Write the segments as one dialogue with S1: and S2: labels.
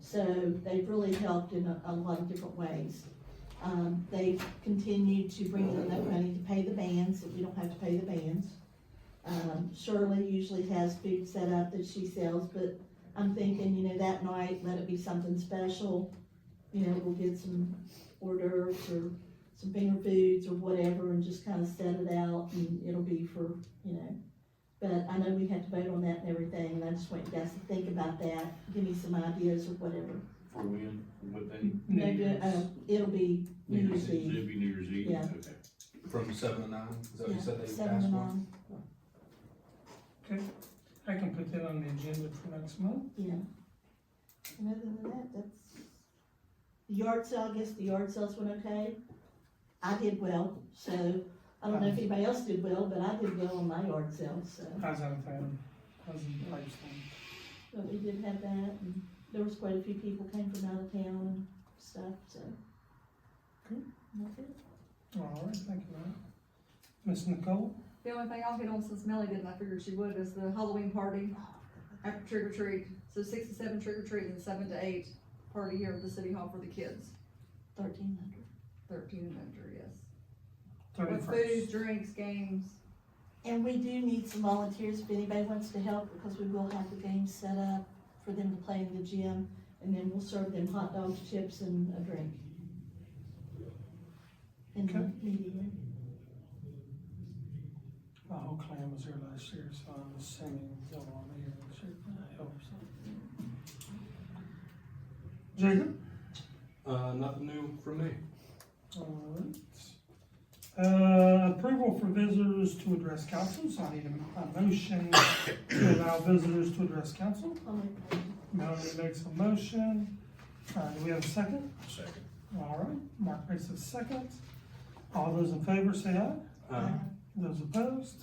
S1: So they've really helped in a, a lot of different ways. Um, they've continued to bring in enough money to pay the bands, so we don't have to pay the bands. Um, Shirley usually has food set up that she sells, but I'm thinking, you know, that night, let it be something special. You know, we'll get some hors d'oeuvres or some finger foods or whatever and just kind of set it out and it'll be for, you know. But I know we have to vote on that and everything, and I just want you guys to think about that, give me some ideas or whatever.
S2: For when, what day?
S1: No, uh, it'll be New Year's Eve,
S2: It'd be New Year's Eve,
S1: Yeah.
S2: okay.
S3: From seven to nine, is that what
S1: yeah,
S3: you said they
S1: seven to
S3: asked for?
S1: nine,
S4: I can put that on the agenda for next month.
S1: yeah. And other than that, that's, the yard sale, I guess the yard sales went okay. I did well, so, I don't know if anybody else did well, but I did well on my yard sale, so.
S4: How's that sound? How's the price sound?
S1: But we did have that, and there was quite a few people came from out of town and stuff, so.
S4: Cool.
S1: That's it.
S4: All right, thank you, Matt. Miss Nicole?
S5: The only thing I'll hit on since Melly didn't, I figured she would, is the Halloween party after trick or treat. So six to seven trick or treat and seven to eight party here at the city hall for the kids,
S1: Thirteen hundred.
S5: thirteen and under, yes. With food,
S4: Thirty-first.
S5: drinks, games,
S1: And we do need some volunteers if anybody wants to help, because we will have the games set up for them to play in the gym, and then we'll serve them hot dogs, chips, and a drink. In
S4: Okay.
S1: the meeting room.
S4: My whole clan was here last year, so I'm assuming they'll want me here this year. I hope so. Jacob?
S3: Uh, nothing new from me.
S4: All right. Uh, approval for visitors to address council, so I need a, a motion to allow visitors to address council.
S1: I'll make that.
S4: Melanie makes a motion. Uh, do we have a second?
S2: Second.
S4: All right, Mark makes a second. All those in favor say aye.
S3: Uh,
S4: Those opposed?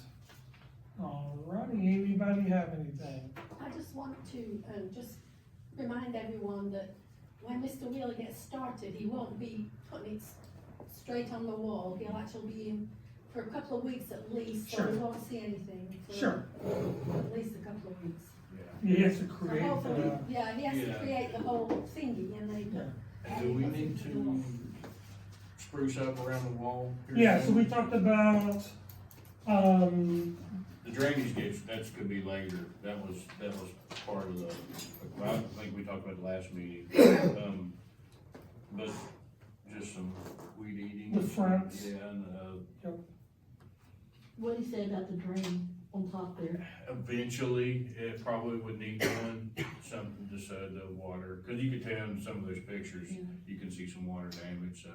S4: All righty, anybody have anything?
S6: I just want to, um, just remind everyone that when Mr. Wheeler gets started, he won't be putting it s- straight on the wall. He'll actually be in for a couple of weeks at least, so we
S4: Sure.
S6: won't see anything for
S4: Sure,
S6: at least a couple of weeks.
S2: Yeah.
S4: he has to
S6: So
S4: create
S6: hopefully,
S4: the,
S6: yeah, he has to
S2: Yeah.
S6: create the whole thingy and
S4: Yeah.
S6: then.
S2: Do we need to spruce up around the wall? here?
S4: yeah, so we talked about, um,
S2: The drainage ditch, that's could be later, that was, that was part of the, I think we talked about it last meeting. Um, But just some weed eating.
S4: The fronts.
S2: Yeah, and, uh,
S1: What do you say about the drain on top there?
S2: eventually, it probably would need one, something to so the water, cause you could tell in some of those pictures,
S1: Yeah.
S2: you can see some water damage, so.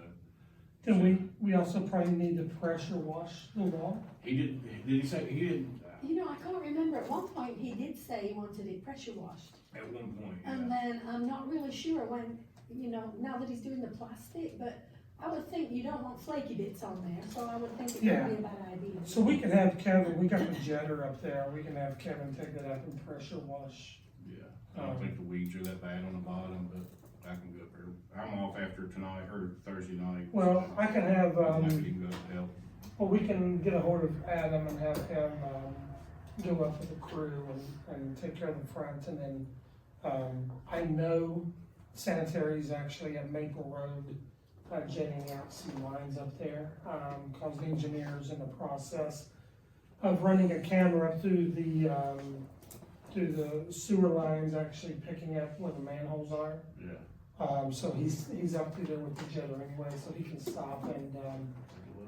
S4: then we, we also probably need to pressure wash the wall.
S2: He didn't, did he say, he didn't,
S6: You know, I can't remember, at one point he did say he wanted it pressure washed.
S2: uh, at one point, yeah.
S6: And then I'm not really sure when, you know, now that he's doing the plastic, but I would think you don't want flaky bits on there, so I would think it
S4: Yeah.
S6: would be a bad idea.
S4: So we can have Kevin, we got the jetter up there, we can have Kevin take that up and pressure wash.
S2: Yeah, I
S4: Um,
S2: don't think the weeds are that bad on the bottom, but I can go up there. I'm off after tonight or Thursday night. so
S4: Well, I can have,
S2: I
S4: um,
S2: could even go up to help.
S4: Well, we can get a hold of Adam and have him, um, go up with the crew and, and take care of the front and then, um, I know sanitary's actually at Maple Road, uh, jetting out some lines up there, um, cause the engineer's in the process of running a camera up through the, um, through the sewer lines, actually picking up where the manholes are.
S2: Yeah.
S4: Um, so he's, he's up through there with the jetter anyway, so he can stop and, um,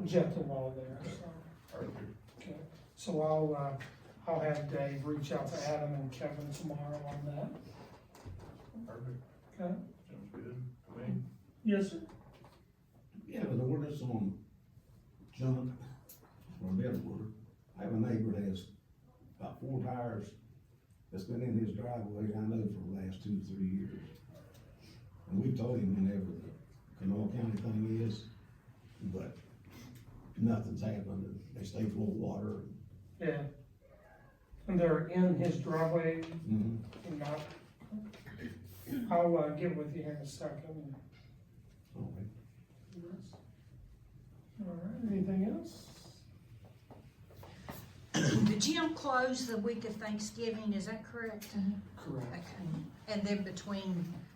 S4: jet the wall there, so.
S2: Perfect.
S4: Okay, so I'll, uh, I'll have Dave reach out to Adam and Kevin tomorrow on that,
S2: Perfect.
S4: okay?
S2: Sounds good. to me.
S4: Yes, sir.
S7: We have an ordinance on junk, or better word, I have a neighbor that has about four tires that's been in his driveway, I know for the last two, three years. And we've told him whenever the Canal County thing is, but nothing's happened, they stay full of water.
S4: Yeah. And they're in his driveway
S7: Mhm.
S4: and not, I'll, uh, get with you here in a second.
S7: All right.
S4: All right, anything else?
S8: The gym closed the week of Thanksgiving, is that correct?
S4: Correct.
S8: Okay. And then between